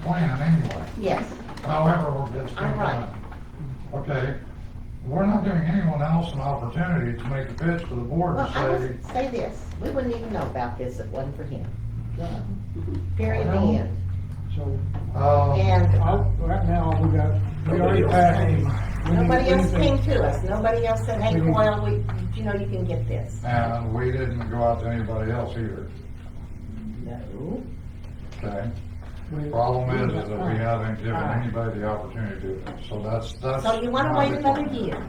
plan anyway. Yes, However, it gets I'm right. done. Okay, we're not giving anyone else an opportunity to make a pitch to the board well, and I say, would say this, we wouldn't even know about this if it wasn't for him, Yeah, period, the Well, end. So, uh, And I, oh, right now, we got, we already Nobody else passed. We came. need- nobody we else need to- came to us, nobody else said, hey, We need- Coyle, we, you know, you can get this. and we didn't go out to anybody else either, No. okay? we- Problem is, is that we Right. haven't given Right. anybody the opportunity to, do it. so that's, that's. So you wanna my- wait another year?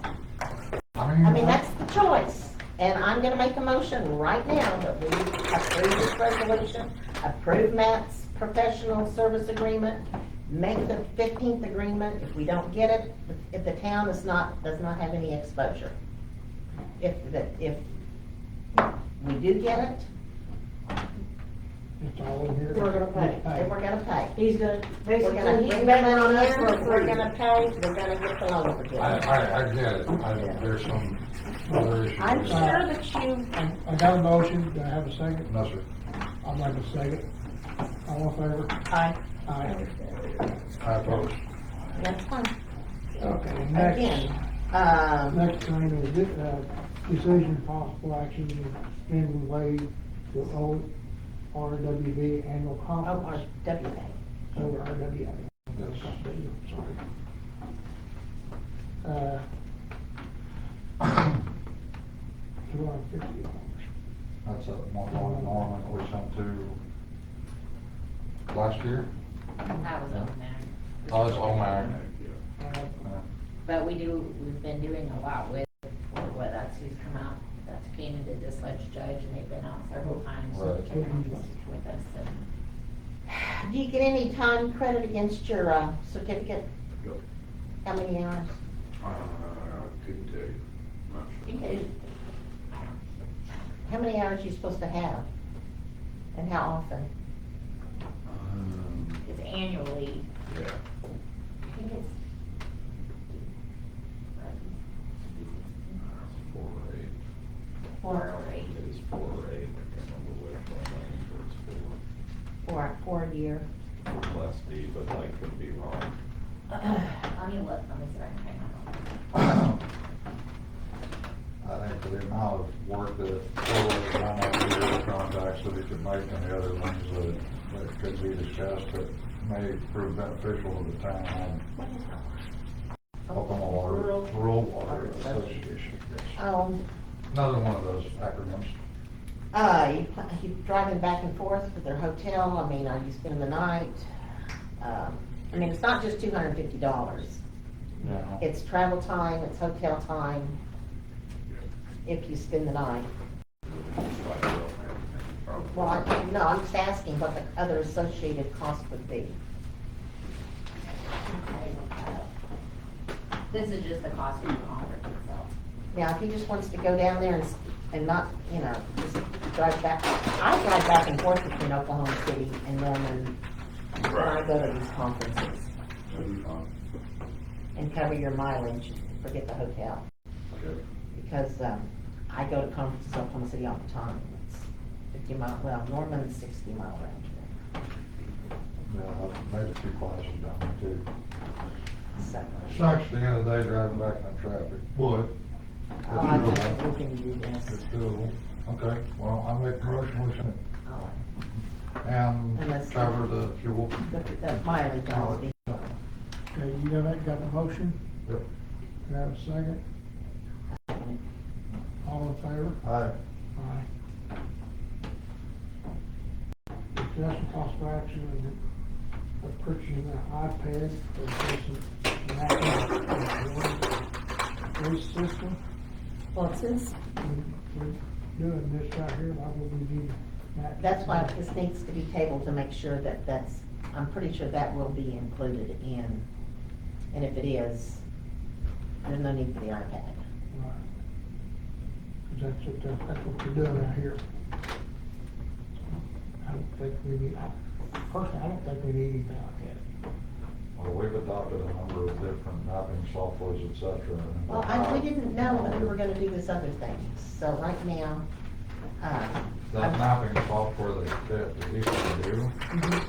I I mean, mean, that's the choice, and I'm gonna make a motion right now that we approve this resolution, approve Matt's professional service agreement, make the fifteenth agreement, if we don't get it, if the town is not, does not have any exposure. If, the- if we do get it, It's all in here. we're gonna pay, and we're gonna pay. He's gonna, We're gonna basically, he's betting bring that on on us for we're free. gonna pay, we're gonna get the loan I, forgiven. I, I get it, I, there's some other issues. I'm sure that you, I got a motion, do I have a second? No, sir. I'd like a second. All in favor? I, Aye. I oppose. that's fine. Okay, Again, next, um, next thing is, di- uh, decision possible action to extend waive the O R W B annual Oh, conference our WA. over R W A. Yes. Sorry. Uh, two hundred and fifty dollars. That's a more long norm we sent to last year. That was on there. Oh, it's all mine. But we do, we've been doing a lot with, what, that's who's come out, that's came into this ledge judge, and they've been out several times Right. with us, and Do you get any time credit against your uh, certificate? No. How many hours? Uh, couldn't tell you. Not sure. you can, How many hours you supposed to have? And how often? Um, it's annually, yeah. I think it's. uh, Four or eight. Four, It is four or eight. I can't remember which one. I think it was four, four a year. four. Four plus D, but I could be wrong. Let me look, let me see, if I can find out. I think for the amount of work that Phil has done out here, the contacts that he could make and the other ones that, that could be discussed that may prove beneficial to the town. Oklahoma Water, Rural Water Association. yes. Um, Another one of those acronyms. uh, you, pl- you driving back and forth with their hotel, I mean, are you spending the night? Um, I mean, it's not just two hundred and fifty dollars. Yeah. It's travel time, it's hotel time, if you spend the night. Like, I don't have any problem. Well, I- no, I'm just asking what the other associated cost would be. This is just the cost of the conference itself. Now, if he just wants to go down there and, s- and not, you know, just drive back, I drive back and forth between Oklahoma City and Norman when I Right. go to these conferences That'd be fine. and cover your mileage, forget the hotel, Okay. because, um, I go to conferences in Oklahoma City all the time. It's Fifty mile, well, Norman's sixty mile round trip, Yeah, I've made a few classes down there too. so. Sucks at the end of the day driving back in that traffic. Would. Oh, I think we can do It's this. doable. Okay, well, I make a motion, we should Oh, Unless- and cover the fuel. The, the mileage always be. Okay, you got that, got the motion? Yep. Can I have a second? All in favor? Aye. Aye. Discussion possible action on the purchasing an iPad for Jason Mackey. Police system, What's this? we, we're doing this right here, why would we need that? That's why this needs to be tabled to make sure that that's, I'm pretty sure that will be included in, and if it is, there's no need for the iPad. Right. 'Cause that's what, the- that's what we're doing out here. I don't think we need, I- personally, I don't think we need anything like that. Well, we've adopted a number of different mapping softwares, et cetera. and- Well, I, we didn't know that we were gonna do this other thing, so right now, uh, That mapping software that, that they used to do,